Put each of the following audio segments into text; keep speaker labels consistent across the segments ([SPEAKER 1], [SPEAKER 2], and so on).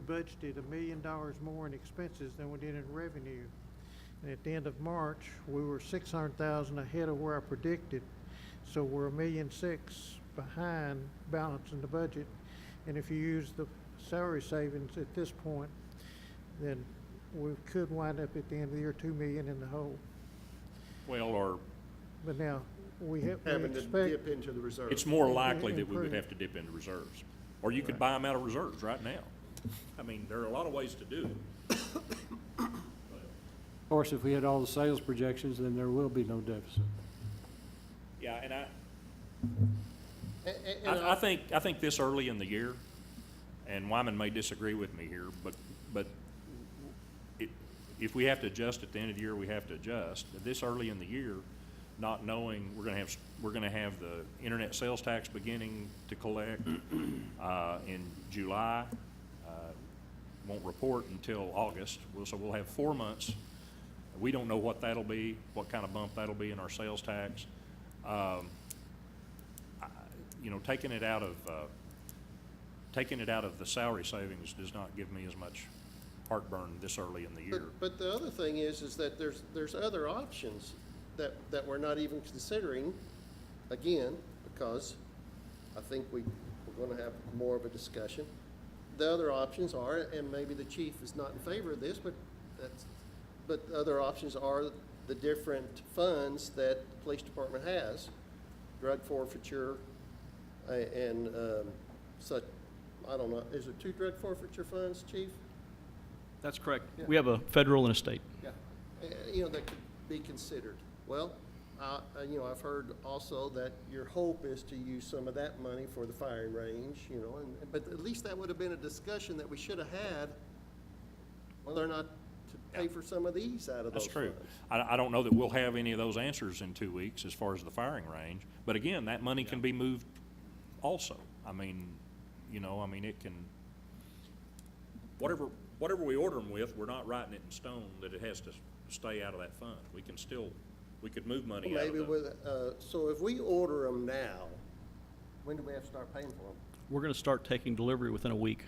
[SPEAKER 1] We budgeted a million dollars more in expenses than we did in revenue. And at the end of March, we were six hundred thousand ahead of where I predicted. So we're a million six behind balancing the budget. And if you use the salary savings at this point, then we could wind up at the end of the year two million in the hole.
[SPEAKER 2] Well, or
[SPEAKER 1] But now, we have, we
[SPEAKER 3] having to
[SPEAKER 1] expect,
[SPEAKER 3] dip into the reserve.
[SPEAKER 2] it's more
[SPEAKER 1] It- it
[SPEAKER 2] likely that we would
[SPEAKER 1] improved.
[SPEAKER 2] have to dip into reserves. Or you could buy them out of reserves right now. I mean, there are a lot of ways to do it.
[SPEAKER 4] Of course, if we hit all the sales projections, then there will be no deficit.
[SPEAKER 2] Yeah, and I,
[SPEAKER 3] A- a- and
[SPEAKER 2] I, I
[SPEAKER 3] I-
[SPEAKER 2] think, I think this early in the year, and Wyman may disagree with me here, but, but it, if we have to adjust at the end of the year, we have to adjust. This early in the year, not knowing, we're gonna have, s- we're gonna have the internet sales tax beginning to collect, uh, in July. Uh, Won't report until August, We'll- so we'll have four months. We don't know what that'll be, what kind of bump that'll be in our sales tax. Um, you know, taking it out of, uh, taking it out of the salary savings does not give me as much heartburn this early in the year.
[SPEAKER 3] But, but the other thing is, is that there's, there's other options that, that we're not even considering, again, because I think we, we're gonna have more of a discussion. The other options are, and maybe the chief is not in favor of this, but that's, but the other options are the different funds that the police department has, drug forfeiture, a- and, um, such, I don't know, is it two drug forfeiture funds, chief?
[SPEAKER 5] That's correct.
[SPEAKER 3] Yeah.
[SPEAKER 5] We have a federal and a state.
[SPEAKER 3] Yeah, Uh, you know, that could be considered. Well, uh, uh, you know, I've heard also that your hope is to use some of that money for the firing range, you know, and, but at least that would have been a discussion that we should have had, whether or not to pay for some of these out of those
[SPEAKER 2] That's true.
[SPEAKER 3] funds.
[SPEAKER 2] I, I don't know that we'll have any of those answers in two weeks as far as the firing range, but again, that money can be moved also. I mean, you know, I mean, it can, whatever, whatever we order them with, we're not writing it in stone that it has to s- stay out of that fund. We can still, we could move money out of
[SPEAKER 3] Maybe
[SPEAKER 2] the.
[SPEAKER 3] with, uh, so if we order them now, when do we have to start paying for them?
[SPEAKER 5] We're going to start taking delivery within a week.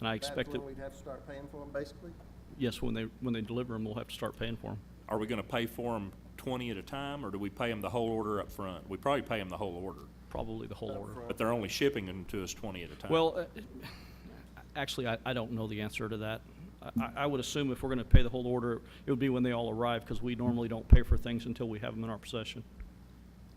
[SPEAKER 5] And I expect that,
[SPEAKER 3] That's when we'd have to start paying for them, basically?
[SPEAKER 5] yes, when they, when they deliver them, we'll have to start paying for them.
[SPEAKER 2] Are we gonna pay for them twenty at a time, or do we pay them the whole order up front? We probably pay them the whole order,
[SPEAKER 5] Probably the whole order.
[SPEAKER 2] but they're only shipping them to us twenty at a time.
[SPEAKER 5] Well, uh, actually, I, I don't know the answer to that. I- I, I would assume if we're going to pay the whole order, it would be when they all arrive because we normally don't pay for things until we have them in our possession.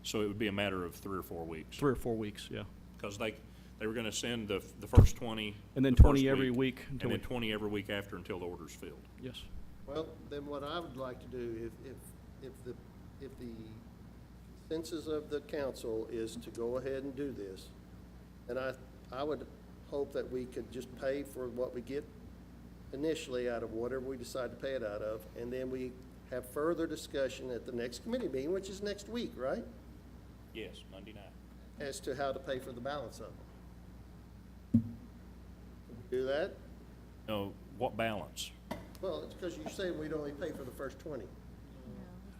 [SPEAKER 2] So it would be a matter of three or four weeks,
[SPEAKER 5] Three or four weeks, yeah.
[SPEAKER 2] because they, they were gonna send the, the first twenty.
[SPEAKER 5] And then
[SPEAKER 2] the
[SPEAKER 5] 20
[SPEAKER 2] first
[SPEAKER 5] every week
[SPEAKER 2] And
[SPEAKER 5] until
[SPEAKER 2] then
[SPEAKER 5] we-
[SPEAKER 2] twenty every week after until the order's filled.
[SPEAKER 5] Yes.
[SPEAKER 3] Well, then what I would like to do, if, if, if the, if the consensus of the council is to go ahead and do this, and I, I would hope that we could just pay for what we get initially out of whatever we decide to pay it out of, and then we have further discussion at the next committee meeting, which is next week, right?
[SPEAKER 2] Yes, Monday night.
[SPEAKER 3] As to how to pay for the balance of them. Do that?
[SPEAKER 2] No, what balance?
[SPEAKER 3] Well, it's because you said we'd only pay for the first twenty.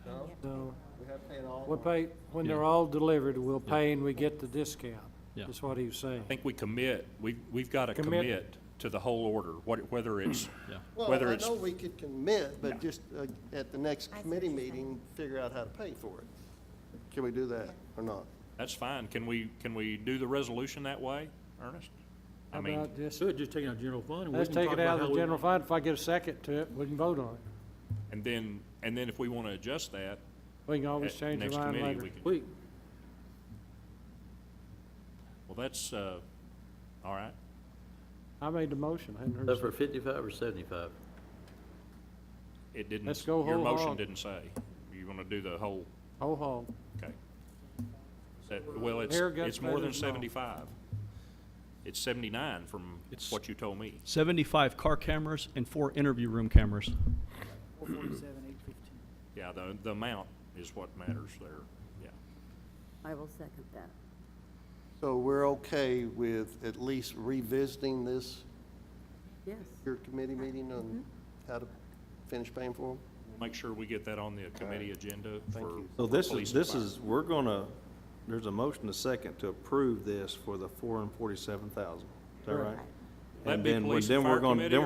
[SPEAKER 3] No?
[SPEAKER 4] So
[SPEAKER 3] We have to pay it all.
[SPEAKER 4] we'll pay, when they're
[SPEAKER 5] Yeah.
[SPEAKER 4] all delivered, we'll pay and we get the discount.
[SPEAKER 5] Yeah.
[SPEAKER 4] That's what he was saying.
[SPEAKER 2] I think we commit, we, we've gotta
[SPEAKER 4] Commit.
[SPEAKER 2] commit to the whole order, what, whether it's,
[SPEAKER 5] Yeah.
[SPEAKER 3] Well,
[SPEAKER 2] whether
[SPEAKER 3] I
[SPEAKER 2] it's.
[SPEAKER 3] know we could commit, but just uh, at the next
[SPEAKER 6] I see what
[SPEAKER 3] committee
[SPEAKER 6] you're
[SPEAKER 3] meeting, figure out how to pay for it. Can we do that or not?
[SPEAKER 2] That's fine. Can we, can we do the resolution that way, Ernest? I
[SPEAKER 4] How
[SPEAKER 2] mean.
[SPEAKER 4] about just,
[SPEAKER 7] So just take it out of general fund? and we
[SPEAKER 4] let's
[SPEAKER 7] can
[SPEAKER 4] take
[SPEAKER 7] talk
[SPEAKER 4] it out
[SPEAKER 7] about
[SPEAKER 4] of the
[SPEAKER 7] how we-
[SPEAKER 4] general fund. If I get a second to it, we can vote on it.
[SPEAKER 2] And then, and then if we want to adjust that,
[SPEAKER 4] We can always
[SPEAKER 2] at
[SPEAKER 4] change our
[SPEAKER 2] next
[SPEAKER 4] mind
[SPEAKER 2] committee,
[SPEAKER 4] later.
[SPEAKER 2] we can.
[SPEAKER 7] We,
[SPEAKER 2] Well, that's, uh, all right.
[SPEAKER 4] I made the motion. I hadn't heard. a
[SPEAKER 8] That's for
[SPEAKER 4] second.
[SPEAKER 8] fifty-five or seventy-five?
[SPEAKER 2] It didn't.
[SPEAKER 4] Let's go
[SPEAKER 2] Your
[SPEAKER 4] whole
[SPEAKER 2] motion
[SPEAKER 4] hog.
[SPEAKER 2] didn't say. You want to do the whole,
[SPEAKER 4] Whole hog.
[SPEAKER 2] okay. That- Well, it's,
[SPEAKER 4] Hair guts
[SPEAKER 2] it's more than
[SPEAKER 4] better than all.
[SPEAKER 2] seventy-five. It's seventy-nine from
[SPEAKER 5] It's-
[SPEAKER 2] what you told me.
[SPEAKER 5] 75 car cameras and four interview room cameras.
[SPEAKER 9] Four forty-seven, eight fifteen.
[SPEAKER 2] Yeah, the, the amount is what matters there, yeah.
[SPEAKER 6] I will second that.
[SPEAKER 3] So we're okay with at least revisiting this,
[SPEAKER 6] Yes.
[SPEAKER 3] your committee meeting on how to finish paying for them?
[SPEAKER 2] Make sure we get that on the committee agenda for.
[SPEAKER 3] you.
[SPEAKER 10] So this
[SPEAKER 2] police
[SPEAKER 10] is,
[SPEAKER 2] and
[SPEAKER 10] this
[SPEAKER 2] fire.
[SPEAKER 10] is, we're gonna, there's a motion to second to approve this for the four and forty-seven thousand. Is that right?
[SPEAKER 6] Right.
[SPEAKER 2] That'd
[SPEAKER 10] And
[SPEAKER 2] be
[SPEAKER 10] then, when-
[SPEAKER 2] police and
[SPEAKER 10] then we're
[SPEAKER 2] fire
[SPEAKER 10] gonna-
[SPEAKER 2] committee
[SPEAKER 10] then